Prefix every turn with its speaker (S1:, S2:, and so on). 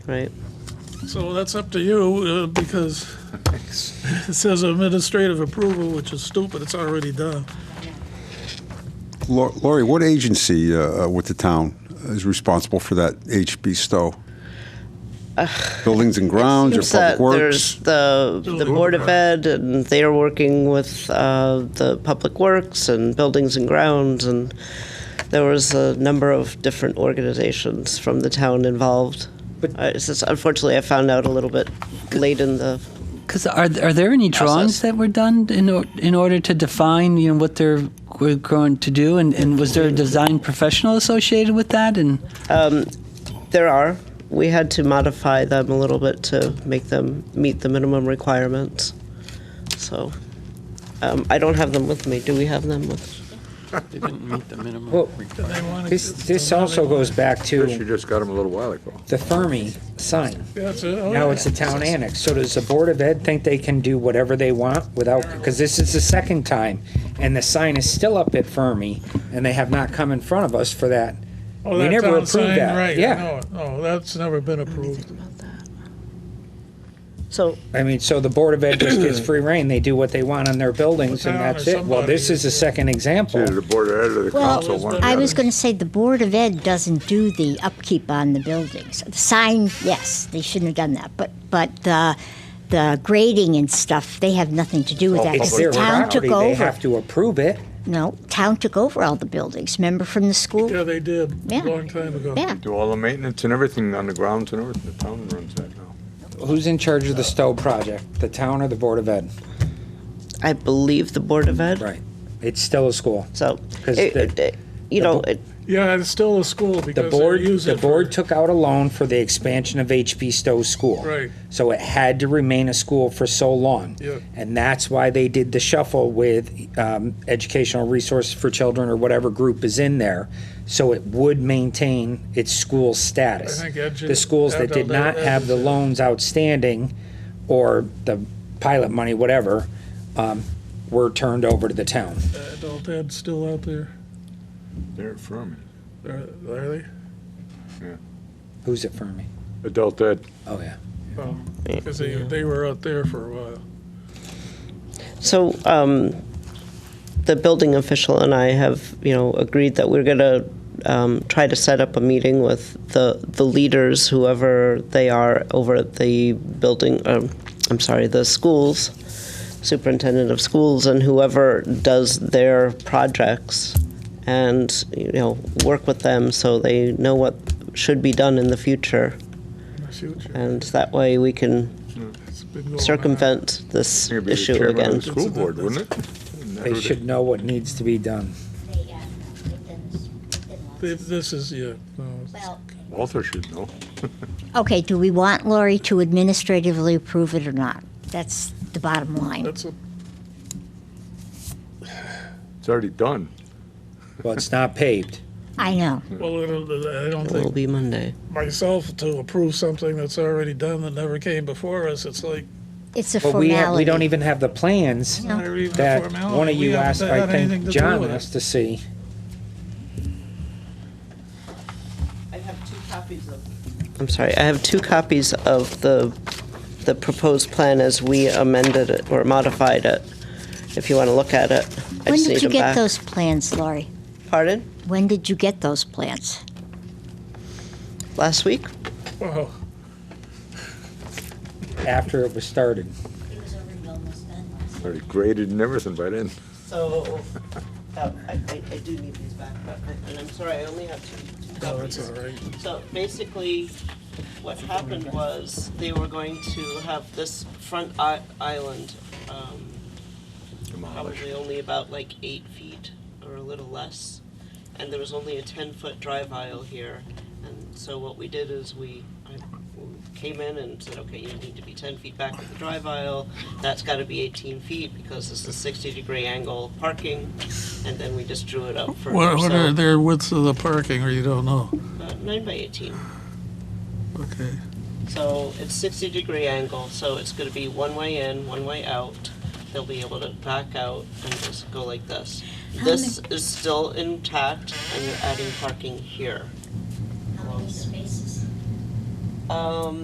S1: right?
S2: So that's up to you, uh, because it says administrative approval, which is stupid, it's already done.
S3: Lau- Laurie, what agency uh, uh, with the town is responsible for that HB Stowe? Buildings and grounds or
S1: Seems that
S3: public
S1: There's
S3: works?
S1: the, the Board of Ed, and they are working with uh, the Public Works and Buildings and Grounds, and there was a number of different organizations from the town involved.
S4: But-
S1: Uh, it's just- Unfortunately, I found out a little bit late in the,
S4: Because are are there any
S1: Process.
S4: drawings that were done in or, in order to define you know what they're were going to do, and, and was there a design professional associated with that? And
S1: there are, we had to modify them a little bit to make them meet the minimum requirements. So, um, I don't have them with me. Do we have them with?
S5: They didn't meet the minimum.
S6: Well,
S2: Did they wanna-
S6: this, this also goes back
S7: Chris, you
S6: to
S7: just got them a little while ago.
S6: the Fermi sign.
S2: That's it, oh,
S6: Now
S2: yeah.
S6: it's a town annex. So does the Board of Ed think they can do whatever they want without, because this is the second time, and the sign is still up at Fermi, and they have not come in front of us for that.
S2: Oh,
S6: we
S2: that
S6: never
S2: town
S6: approved
S2: sign,
S6: that.
S2: Right,
S6: Yeah.
S2: no, no, Oh, that's never been approved.
S1: So,
S6: I mean, so the Board of Ed just gets free reign. They do what they want on their buildings, and
S2: Town or
S6: that's it. Well,
S2: somebody.
S6: this is a second example.
S7: Either the board of ed or the
S8: Well,
S7: council. one or the
S8: I was
S7: other.
S8: going to say the Board of Ed doesn't do the upkeep on the buildings. The sign, yes, they shouldn't have done that, but, but the, the grading and stuff, they have nothing to do with
S7: Well,
S8: that. 'cause
S6: It's
S7: Public
S8: the
S6: their
S8: town took
S6: property. They
S8: over.
S6: have to approve it.
S8: No, town took over all the buildings, remember from the school?
S2: Yeah, they did, a
S8: Yeah.
S2: long time ago.
S8: Yeah,
S7: Do all the maintenance and everything on the grounds and everything. The town runs that now.
S6: Who's in charge of the Stowe project? The town or the Board of Ed?
S1: I believe the Board of Ed.
S6: Right. It's still a school.
S1: So,
S6: 'Cause
S1: it-
S6: the-
S1: it- it- you
S6: the
S1: know,
S6: bo-
S1: it,
S2: Yeah, it's still a school
S6: The
S2: because they're
S6: board, the
S2: using it. for-
S6: board took out a loan for the expansion of HB Stowe School.
S2: Right.
S6: So it had to remain a school for so long.
S2: Yeah.
S6: And that's why they did the shuffle with um, Educational Resources for Children or whatever group is in there, so it would maintain its school status.
S2: I think edu-
S6: The schools that did
S2: adult
S6: not
S2: ed-
S6: have the loans outstanding or the pilot money, whatever, um, were turned over to the town.
S2: Adult ed's still out there,
S7: They're from
S2: are are they?
S6: Who's it for me?
S7: it. adult ed.
S6: Oh, yeah.
S2: Because they, they were out there for a while.
S1: so um, the building official and I have, you know, agreed that we're going to um, try to set up a meeting with the the leaders, whoever they are, over at the building. Um, I'm sorry, the schools, superintendent of schools, and whoever does their projects, and you know, work with them so they know what should be done in the future,
S2: in the future.
S1: and that way we can
S2: It's been going on.
S1: Uh, circumvent
S7: I
S1: this
S7: think it'd be the
S1: issue
S7: chairman of
S1: again.
S7: the School board, wouldn't it?
S6: They should know what needs to be done.
S2: This this is, yeah, no,
S7: Walter should know.
S8: okay, do we want Lori to administratively approve it or not? That's the bottom line.
S2: that's a,
S7: It's already done.
S6: Well, it's not paved.
S8: I know,
S2: well, it'll- I don't
S1: It will
S2: think
S1: be Monday.
S2: myself to approve something that's already done that never came before us, it's like,
S8: it's a
S6: But we, have, we don't
S8: formality.
S6: even have the plans
S2: not even a
S6: that
S2: formality.
S6: one of
S2: We
S6: you
S2: haven't
S6: asked,
S2: had
S6: I
S2: anything
S6: think
S2: to do
S6: John
S2: with it.
S6: asked to see.
S1: I have two copies of. I'm sorry, I have two copies of the, the proposed plan as we amended it or modified it, if you want to look at it. I
S8: When
S1: just need
S8: did you
S1: them
S8: get
S1: back.
S8: those plans, Lori?
S1: Pardon?
S8: When did you get those plans?
S1: Last week?
S2: Wow.
S6: After it was started,
S7: Already graded and everything by then.
S1: So, uh, I do need these back, and I'm sorry, I only have two
S2: No, that's all right.
S1: So basically, what happened was they were going to have this front i- island, um, probably only about like eight feet or a little less, and there was only a ten foot drive aisle here. And so what we did is we I came in and said, okay, you need to be ten feet back with the drive aisle. That's got to be eighteen feet because this is sixty degree angle parking, and then we just drew it up for
S2: What, what are their widths of the parking, or you don't know?
S1: nine by eighteen.
S2: Okay.
S1: So it's 60 degree angle, so it's going to be one way in, one way out. They'll be able to back out and just go like this. This is still intact, and you're adding parking here.
S8: How many spaces?
S1: Um,